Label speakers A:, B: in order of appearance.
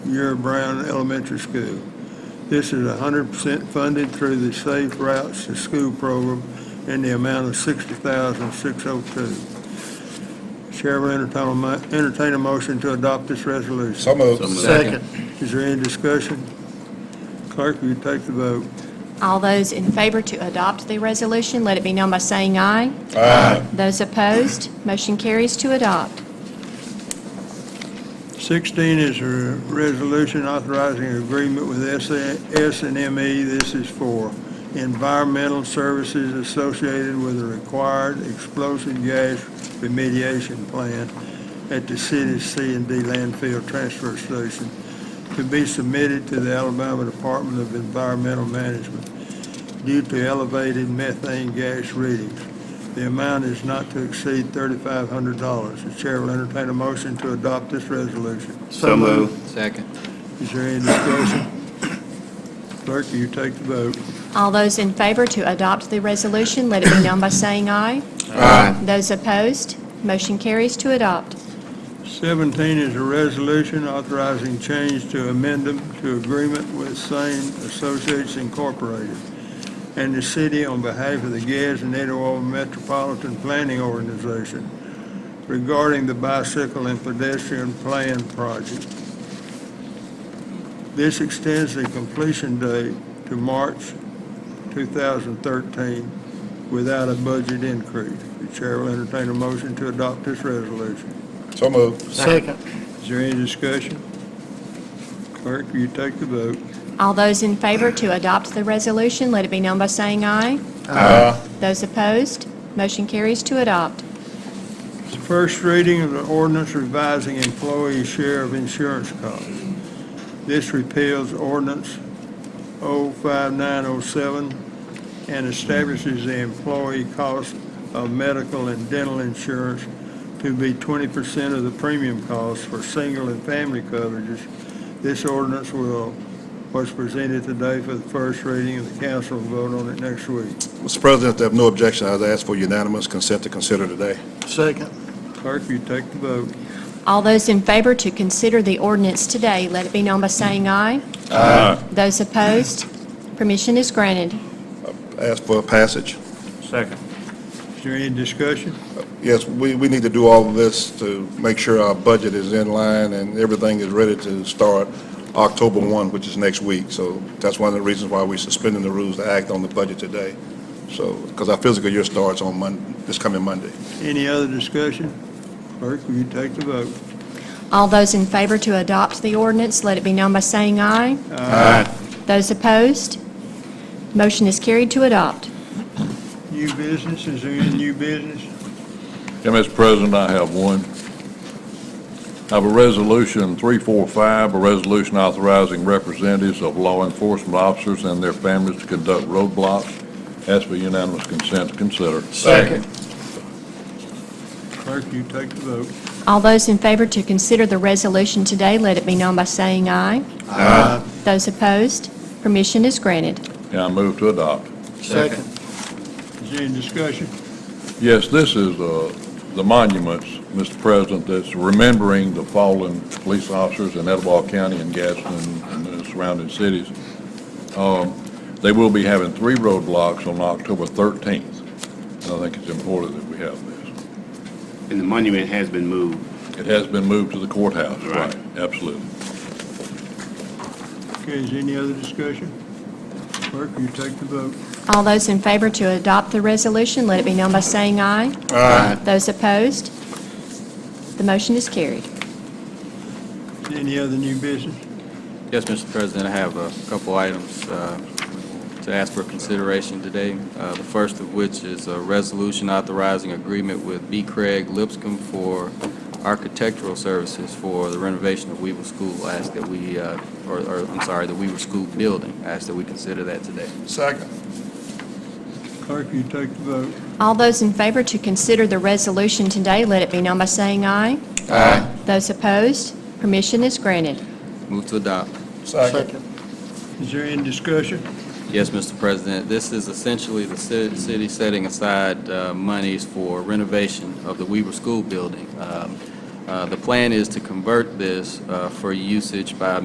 A: Muir Brown Elementary School. This is 100% funded through the Safe Routes to School program in the amount of $60,602. Chair will oh entertain a mo- entertain a motion to adopt this resolution.
B: So moved.
C: Second.
A: Is there any discussion? Clerk, will you take the vote?
D: All those in favor to adopt the resolution, let it be known by saying aye.
B: Aye.
D: Those opposed, motion carries to adopt.
A: 16 is a resolution authorizing agreement with S and ME. This is for environmental services associated with a required explosive gas remediation plan at the city's C and D landfill transfer station to be submitted to the Alabama Department of Environmental Management due to elevated methane gas readings. The amount is not to exceed $3,500. The chair will entertain a motion to adopt this resolution.
C: So moved.
E: Second.
A: Is there any discussion? Clerk, will you take the vote?
D: All those in favor to adopt the resolution, let it be known by saying aye.
C: Aye.
D: Those opposed, motion carries to adopt.
A: 17 is a resolution authorizing change to amendum to agreement with Sane Associates Incorporated and the city on behalf of the Gads and Etowah Metropolitan Planning Organization regarding the bicycle and pedestrian plan project. This extends the completion date to March 2013 without a budget increase. The chair will entertain a motion to adopt this resolution.
B: So moved.
C: Second.
A: Is there any discussion? Clerk, will you take the vote?
D: All those in favor to adopt the resolution, let it be known by saying aye.
B: Aye.
D: Those opposed, motion carries to adopt.
A: It's the first reading of the ordinance revising employee share of insurance costs. This repeals ordinance 05907 and establishes the employee cost of medical and dental insurance to be 20% of the premium cost for single and family coverages. This ordinance will, was presented today for the first reading, and the council will vote on it next week.
B: Mr. President, if there are no objection, I'd ask for unanimous consent to consider today.
C: Second.
A: Clerk, will you take the vote?
D: All those in favor to consider the ordinance today, let it be known by saying aye. Aye. Those opposed, permission is granted.
B: Ask for passage.
C: Second.
A: Is there any discussion?
B: Yes, we, we need to do all of this to make sure our budget is in line and everything is ready to start October 1, which is next week. So that's one of the reasons why we're suspending the rules to act on the budget today. So, because our physical year starts on Monday, this coming Monday.
A: Any other discussion? Clerk, will you take the vote?
D: All those in favor to adopt the ordinance, let it be known by saying aye.
C: Aye.
D: Those opposed, motion is carried to adopt.
A: New business, is there any new business?
F: Yeah, Mr. President, I have one. I have a resolution 345, a resolution authorizing representatives of law enforcement officers and their families to conduct roadblocks. Ask for unanimous consent to consider.
C: Second.
A: Clerk, will you take the vote?
D: All those in favor to consider the resolution today, let it be known by saying aye.
C: Aye.
D: Those opposed, permission is granted.
F: And I move to adopt.
C: Second.
A: Is there any discussion?
F: Yes, this is uh, the monuments, Mr. President, that's remembering the fallen police officers in Etowah County and Gadsden and the surrounding cities. Um, They will be having three roadblocks on October 13th, and I think it's important that we have this.
G: And the monument has been moved.
F: It has been moved to the courthouse,
G: Right.
F: right, absolutely.
A: Okay, is there any other discussion? Clerk, will you take the vote?
D: All those in favor to adopt the resolution, let it be known by saying aye.
C: Aye.
D: Those opposed, the motion is carried.
A: Is there Any other new business?
E: Yes, Mr. President, I have a couple items uh, to ask for consideration today. Uh, The first of which is a resolution authorizing agreement with B. Craig Lipscomb for architectural services for the renovation of Weaver School. I Ask that we, uh, or, or, I'm sorry, the Weaver School building. I Ask that we consider that today.
B: Second.
A: Clerk, will you take the vote?
D: All those in favor to consider the resolution today, let it be known by saying aye.
C: Aye.
D: Those opposed, permission is granted.
E: Move to adopt.
C: Second.
A: Is there any discussion?
E: Yes, Mr. President, this is essentially the ci- city setting aside uh, monies for renovation of the Weaver School building. Um, uh, The plan is to convert this uh, for usage by